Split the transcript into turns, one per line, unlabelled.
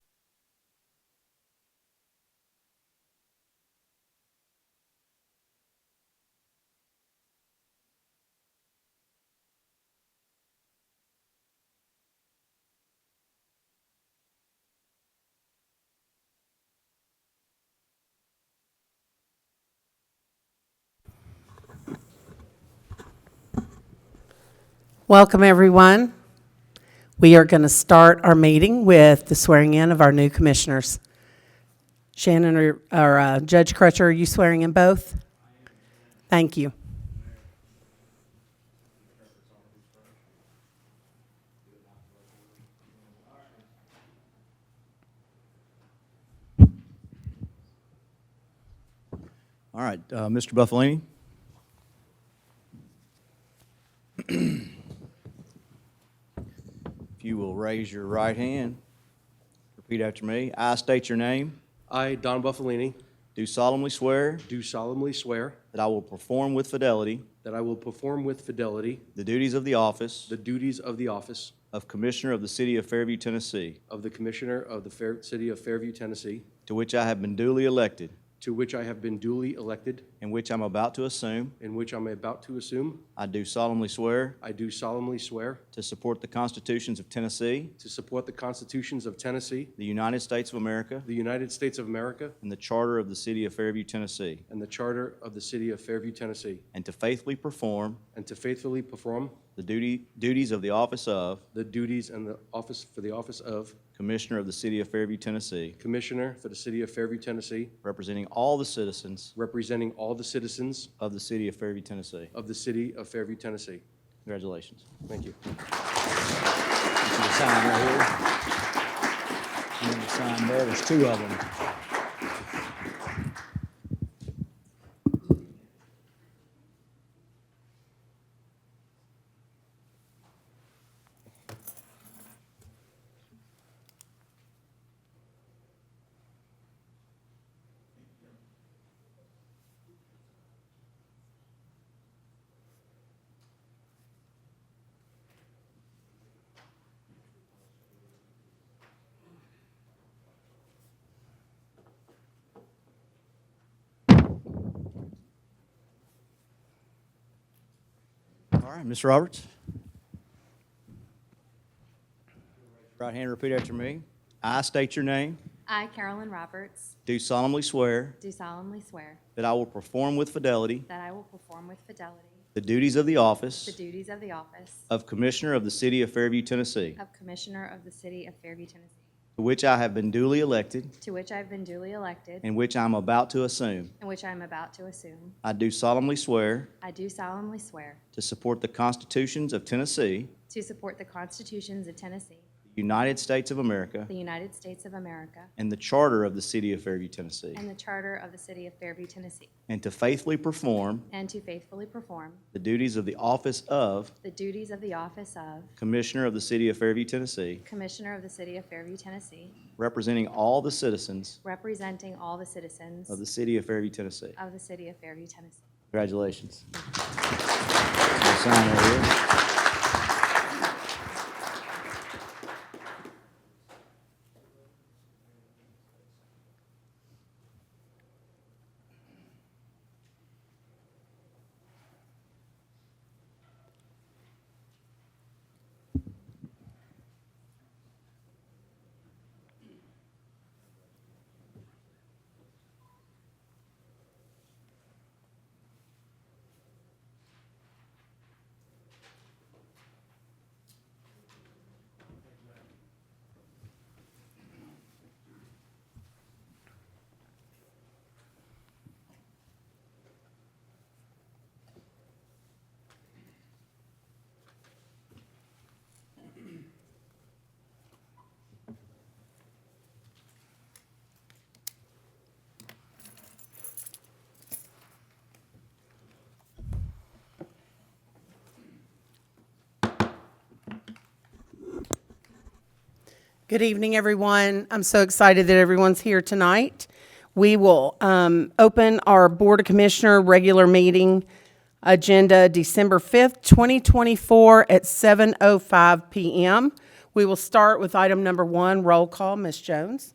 Welcome, everyone. We are going to start our meeting with the swearing in of our new commissioners. Shannon or- or uh, Judge Crutcher, are you swearing in both? Thank you.
All right, uh, Mr. Buffalini? If you will raise your right hand, repeat after me. I state your name,
I, Don Buffalini,
do solemnly swear
do solemnly swear
that I will perform with fidelity
that I will perform with fidelity
the duties of the office
the duties of the office
of Commissioner of the City of Fairview, Tennessee,
of the Commissioner of the Fair- City of Fairview, Tennessee,
to which I have been duly elected
to which I have been duly elected
and which I'm about to assume.
and which I'm about to assume.
I do solemnly swear
I do solemnly swear
to support the constitutions of Tennessee,
to support the constitutions of Tennessee,
the United States of America,
the United States of America,
and the Charter of the City of Fairview, Tennessee.
and the Charter of the City of Fairview, Tennessee,
And to faithfully perform
and to faithfully perform
the duty, duties of the office of
the duties and the office for the office of
Commissioner of the City of Fairview, Tennessee,
Commissioner for the City of Fairview, Tennessee,
representing all the citizens
representing all the citizens
of the City of Fairview, Tennessee.
of the City of Fairview, Tennessee.
Congratulations.
Thank you.
You can sign right here. You can sign there. There's two of them. All right, Ms. Roberts. Right hand, repeat after me. I state your name,
I, Carolyn Roberts,
do solemnly swear
do solemnly swear
that I will perform with fidelity
that I will perform with fidelity
the duties of the
the
office
duties of the office
of Commissioner of the City of Fairview, Tennessee,
of Commissioner of the City of Fairview, Tennessee,
to which I have been duly elected
to which I have been duly elected
and which I am about to assume.
and which I am about to assume.
I do solemnly swear
I do solemnly swear
to support the constitutions of Tennessee,
to support the constitutions of Tennessee,
the United States of America,
the United States of America,
and the charter of the City of Fairview, Tennessee,
and the Charter of the City of Fairview, Tennessee,
and to faithfully perform
and to faithfully perform
the duties of the office of
the duties of the office of
Commissioner of the City of Fairview, Tennessee,
Commissioner of the City of Fairview, Tennessee,
representing all the citizens
representing all the citizens
of the City of Fairview, Tennessee.
of the City of Fairview, Tennessee.
Congratulations. We'll sign right here.
Good evening, everyone. I'm so excited that everyone's here tonight. We will um, open our Board of Commissioner regular meeting agenda December 5th, 2024 at 7:05 PM. We will start with item number one, roll call. Ms. Jones?